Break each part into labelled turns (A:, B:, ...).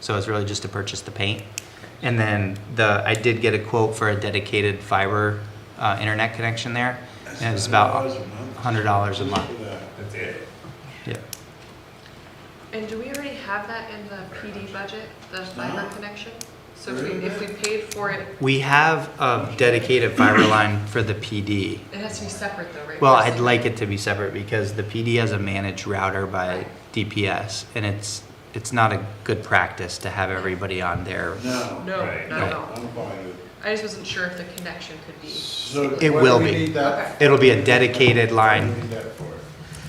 A: So it's really just to purchase the paint. And then the, I did get a quote for a dedicated fiber uh, internet connection there. And it was about
B: $100 a month.
A: $100 a month.
C: That's it.
A: Yeah.
D: And do we already have that in the PD budget, the
B: No.
D: fiber connection? So if we, if we paid for it,
A: We have a dedicated fiber line for the PD.
D: it has to be separate though, right?
A: Well, I'd like it to be separate because the PD has a managed router by DPS and it's, it's not a good practice to have everybody on there.
B: No,
D: No,
C: Right.
D: not at all.
B: I'm fine with
D: I just wasn't sure if the connection could be.
B: it. So
A: It
B: what
A: will
B: do we
A: be.
B: need that-
A: It'll be a dedicated
B: What do we
A: line.
B: need that for?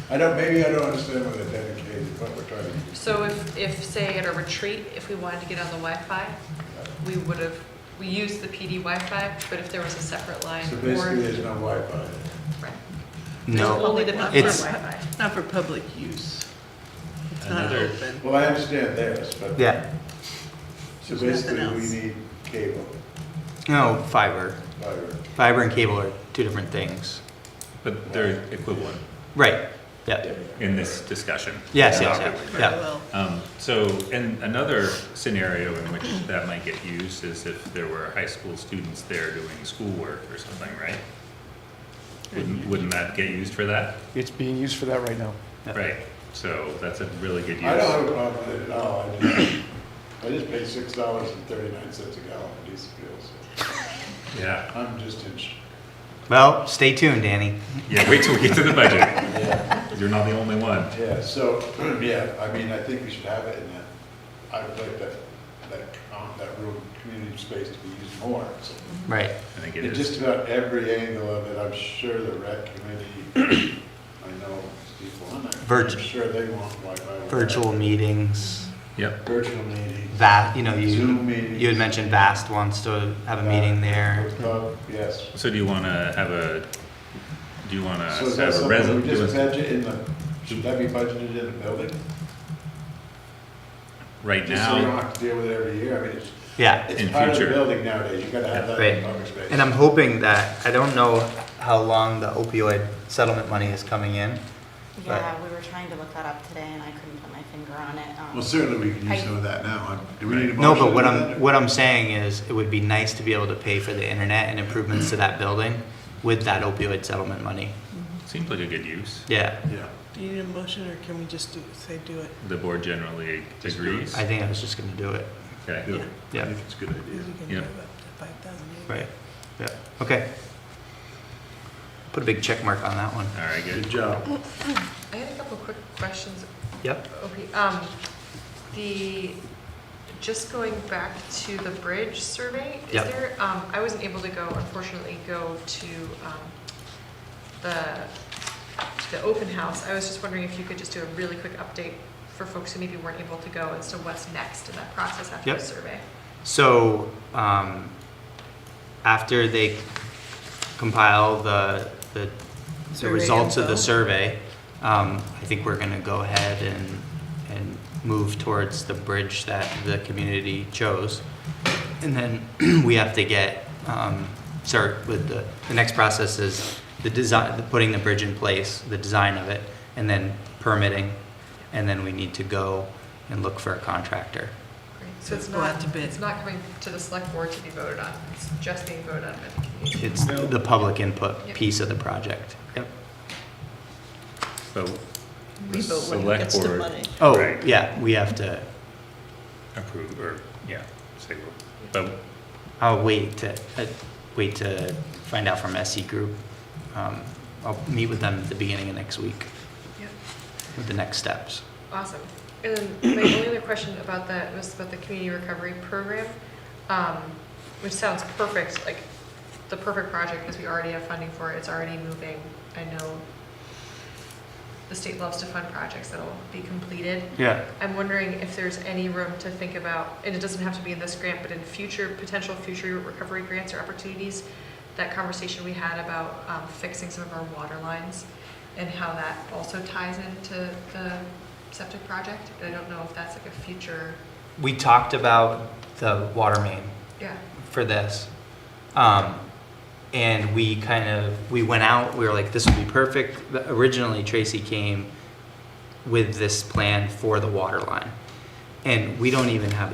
B: I don't, maybe I don't understand what a dedicated, what we're trying to do.
D: So if, if, say at a retreat, if we wanted to get on the Wi-Fi, we would have, we used the PD Wi-Fi, but if there was a separate line
B: So basically,
D: or.
B: there's no Wi-Fi.
D: Right.
A: No,
D: Only the
E: Not
D: public
E: for
A: it's-
E: Wi-Fi. Not for public use. It's not
C: Another-
E: open.
B: Well, I understand theirs, but.
A: yeah,
B: So
E: There's nothing
B: basically, we need
E: else.
B: cable,
A: no, fiber.
B: fiber.
A: Fiber and cable are two different things.
C: But they're equivalent
A: Right, yeah,
C: in this discussion.
A: yes, yes, yeah,
E: Very
A: yeah.
E: well.
C: Um, so, and another scenario in which that might get used is if there were high school students there doing schoolwork or something, right? Wouldn't, wouldn't that get used for that?
F: It's being used for that right now.
C: Right, so that's a really good
B: I don't have
C: use.
B: a problem with it at all. I just- I just paid six dollars and thirty-nine cents a gallon for diesel fuel, so
C: Yeah,
B: I'm just in. sh-
A: Well, stay tuned, Danny.
C: yeah, wait till we get to the budget.
B: Yeah,
C: You're not the only one.
B: yeah, so, yeah, I mean, I think we should have it in that, I would like that, that, com- that room, community space to be used more. So
A: Right,
C: I think it
B: In
C: is.
B: just about every angle of it, I'm sure the rec committee, I know people on there, I'm
A: Virg-
B: sure they want Wi-Fi.
A: virtual meetings,
C: Yep,
B: Virtual meeting.
A: va, you know,
B: Zoom
A: you,
B: meetings.
A: you had mentioned Vast wants to have a meeting there.
B: Uh, Yes.
C: so do you wanna have a, do you wanna
B: So is
C: Uh, have
B: that
C: a
B: something
C: resolution?
B: we just budget in the, should that be budgeted in the building?
C: Right
B: Just so you don't
C: now,
B: have to deal with it every year, I mean, it's,
A: Yeah,
B: it's
C: In
B: part of the
C: future.
B: building nowadays, you gotta have that in
A: Right.
B: public space.
A: and I'm hoping that, I don't know how long the opioid settlement money is coming in.
G: Yeah, we were trying to look that up today and I couldn't put my finger on it. um,
B: Well, certainly we can use
G: I-
B: some of that now, Um, do we need a motion?
A: No, but what
B: for
A: I'm,
B: that?
A: what I'm saying is, it would be nice to be able to pay for the internet and improvements to that building with that opioid settlement money.
C: seems like a good use.
A: Yeah,
B: Yeah,
E: Do you need a motion or can we just do, say do it?
C: The board generally agrees.
A: I think I was just gonna do it.
C: Okay,
E: Yeah.
B: I
A: Yeah,
B: think it's a good
E: We
B: idea.
E: can
C: Yeah.
E: do up to five thousand.
A: right, yeah, okay. Put a big check mark on that one.
C: all right,
B: Good
C: good.
B: job.
D: I had a couple quick questions
A: Yep,
D: Okay, um, the, just going back to the bridge survey, is
A: Yep.
D: there, um, I wasn't able to go, unfortunately, go to, um, the, the open house. I was just wondering if you could just do a really quick update for folks who maybe weren't able to go as to what's next in that process after the
A: Yep.
D: survey.
A: so, um, after they compile the, the, the
E: Survey
A: results of the
E: info.
A: survey, um, I think we're gonna go ahead and, and move towards the bridge that the community chose. And then we have to get, um, start with the, the next process is the design, the putting the bridge in place, the design of it, and then permitting. And then we need to go and look for a contractor.
D: Great. So it's
E: Go out
D: not,
E: to bid.
D: it's not coming to the select board to be voted on, it's just being voted on by the community.
A: It's the public input
D: Yep.
A: piece of the project. Yep.
C: So the
E: Vote when it
C: select
E: gets to
C: board
E: money.
A: Oh,
C: Right.
A: yeah, we have to,
C: approve, or, yeah, say, we'll- but,
A: I'll wait to, uh, wait to find out from SE Group. Um, I'll meet with them at the beginning of next week
D: Yep.
A: with the next steps.
D: Awesome. And then my only other question about that was about the community recovery program, um, which sounds perfect, like the perfect project because we already have funding for it. It's already moving. I know the state loves to fund projects that'll be completed.
A: Yeah.
D: I'm wondering if there's any room to think about, and it doesn't have to be in this grant, but in future, potential future recovery grants or opportunities, that conversation we had about um, fixing some of our water lines and how that also ties into the septic project. I don't know if that's like a future,
A: We talked about the water main
D: yeah,
A: for this. Um, and we kind of, we went out, we were like, this would be perfect. But Originally Tracy came with this plan for the water line. And we don't even have